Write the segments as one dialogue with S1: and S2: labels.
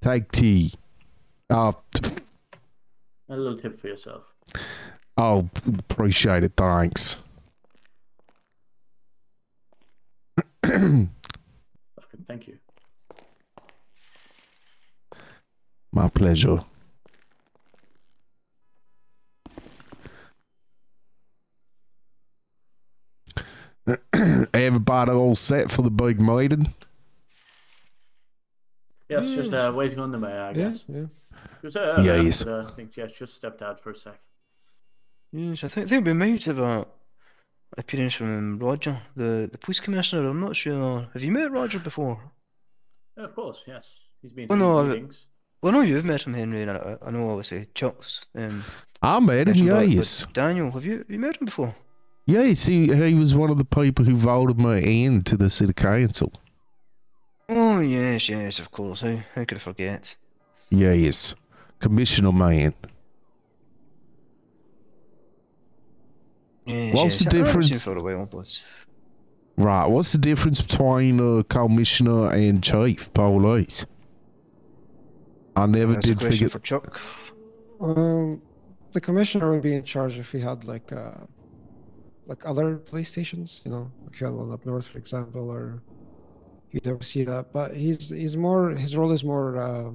S1: Take tea. Oh, t-
S2: A little tip for yourself.
S1: oh, appreciate it. Thanks.
S2: Okay, thank you.
S1: My pleasure. Everybody all set for the big meeting?
S2: Yes, just uh, waiting on the mayor, I guess.
S3: Mm. yeah.
S2: She was, uh, around,
S1: Yes.
S2: but, uh, I think she just stepped out for a sec.
S3: Yes, I think, I think we might have a appearance from um, Roger, the, the police commissioner. I'm not sure. Have you met Roger before?
S2: Yeah, Oh, of course, yes. He's been
S3: Well,
S2: to
S3: Oh, no,
S2: these
S3: I-
S2: meetings.
S3: Well, I know you've met him, Henry, and I, I know obviously Chuck's. Um,
S1: I met him,
S3: mentioned about it, but
S1: yes.
S3: Daniel, have you, have you met him before?
S1: Yes, he, he was one of the people who voted me in to the city council.
S3: Oh, yes, yes, of course. How, how could I forget?
S1: Yes. Commissioner man. What's the
S3: Yes, yes. I haven't seen
S1: difference?
S3: him for a while, but
S1: Right, what's the difference between uh, commissioner and chief police? I never
S3: that's a
S1: did
S3: question
S1: figure.
S3: for Chuck.
S4: Um, the commissioner would be in charge if we had like uh, like other police stations, you know, like you had one up north, for example, or you'd never see that. But he's he's more his role is more uh, like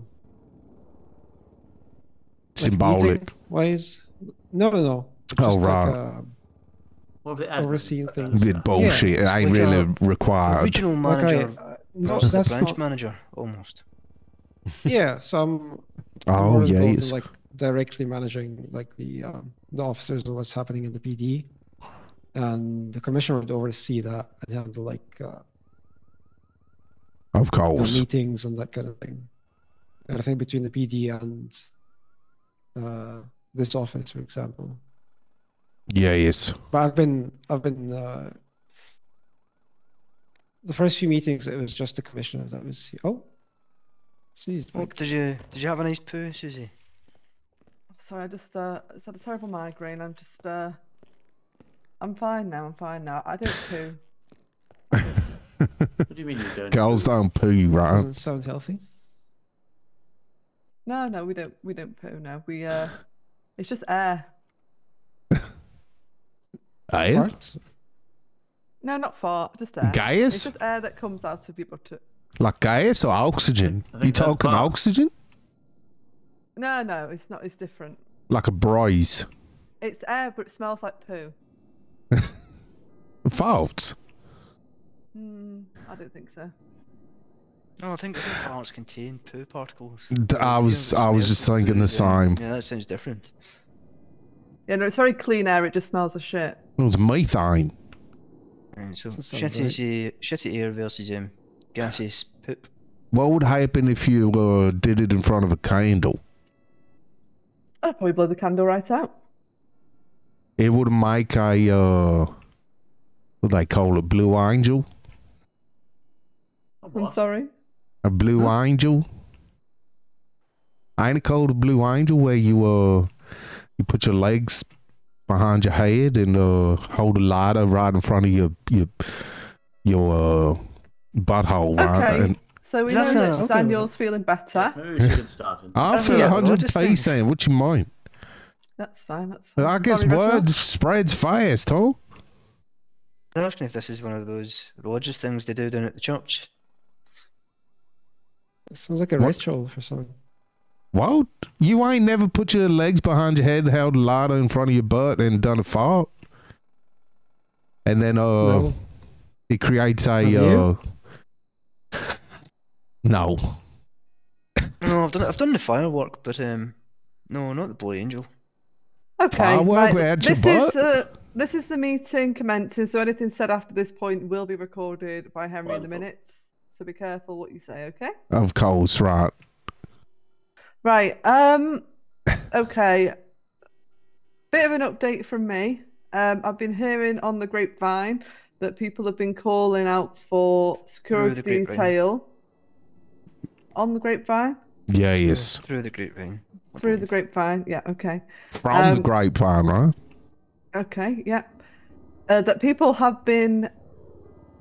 S1: Symbolic.
S4: wise. No, no, no.
S1: Oh,
S4: Just like,
S1: right.
S4: uh,
S2: More of the admin,
S4: overseeing
S2: uh,
S4: things.
S1: Did bullshit.
S3: it's
S1: it ain't
S3: like
S1: really
S3: a-
S1: required.
S3: Regional
S4: like I-
S3: manager
S4: uh, no,
S3: versus the
S4: that's
S3: branch
S4: not.
S3: manager, almost.
S4: Yeah, so I'm I'm
S1: Oh
S4: more involved in,
S1: yes.
S4: like directly managing like the um, the officers and what's happening in the PD, and the commissioner would oversee that and handle like uh,
S1: Of
S4: you know,
S1: course.
S4: meetings and that kind of thing. And I think between the PD and uh, this office, for example.
S1: Yes.
S4: But I've been I've been uh, the first few meetings it was just the commissioner that was oh. Sneezed.
S3: Oh,
S4: Mike.
S3: did you did you have a nice poo, Susie?
S5: Sorry, I just uh, it's had a terrible migraine. I'm just uh, I'm fine now. I'm fine now. I don't poo.
S2: What do you mean you don't?
S1: Girls don't poo, right?
S4: Doesn't sound healthy.
S5: No, no, we don't. We don't poo. No, we uh, it's just air.
S1: Eh?
S4: Farts?
S5: No, not fart. Just air.
S1: Gas?
S5: It's just air that comes out of your buttock.
S1: Like gas or oxygen?
S2: I think
S1: You
S2: that's
S1: talking
S2: both.
S1: oxygen?
S5: No, no, it's not. It's different.
S1: Like a breeze.
S5: It's air, but it smells like poo.
S1: Farts.
S5: Hmm, I don't think so.
S3: No, I think I think farts contain poo particles.
S1: D- I
S3: It's
S1: was
S3: weird, it
S1: I was
S3: smells
S1: just
S3: like
S1: thinking the
S3: poo, yeah.
S1: same.
S3: Yeah, that sounds different.
S5: Yeah, no, it's very clean air. It just smells of shit.
S1: It was methane.
S3: Right, so
S4: Doesn't sound
S3: shitty,
S4: right.
S3: sea- shitty air versus um, gaseous poop.
S1: What would happen if you uh, did it in front of a candle?
S5: I'd probably blow the candle right out.
S1: It would make a uh, what they call it, blue angel,
S2: Oh,
S5: I'm
S2: what?
S5: sorry.
S1: a blue angel. Ain't it called a blue angel where you uh you put your legs behind your head and uh hold a lighter right in front of your your your uh butthole, right?
S5: Okay.
S1: And
S5: So we
S3: That's
S5: know
S3: a-
S5: that
S4: okay.
S5: Daniel's feeling better.
S2: Maybe we should get started.
S1: I
S3: That's
S1: feel
S3: not
S1: a hundred
S3: religious thing.
S1: percent. What you mind?
S5: That's fine. That's fine.
S1: I guess
S5: Sorry, Reginald.
S1: word spreads fast, huh?
S3: I'm asking if this is one of those religious things they do down at the church.
S4: It sounds like a
S1: What?
S4: ritual for something.
S1: What? You ain't never put your legs behind your head, held a lighter in front of your butt, and done a fart. And then uh,
S4: No.
S1: it creates a
S4: Have
S1: uh,
S4: you?
S1: no.
S3: No, I've done I've done the firework, but um, no, not the boy angel.
S5: Okay.
S1: Firework
S5: right,
S1: without your
S5: This
S1: butt?
S5: is uh, this is the meeting commencing. So anything said after this point will be recorded by Henry in the
S2: Wonderful.
S5: minutes. So be careful what you say. Okay.
S1: Of course, right?
S5: Right. Um. Okay. Bit of an update from me. Um, I've been hearing on the grapevine that people have been calling out for security
S3: grapevine?
S5: detail on the grapevine
S1: Yes,
S3: Through the grapevine. I
S5: through the
S3: believe.
S5: grapevine. Yeah. Okay.
S1: from the
S5: Um,
S1: grapevine, right?
S5: Okay, yeah. Uh, that people have been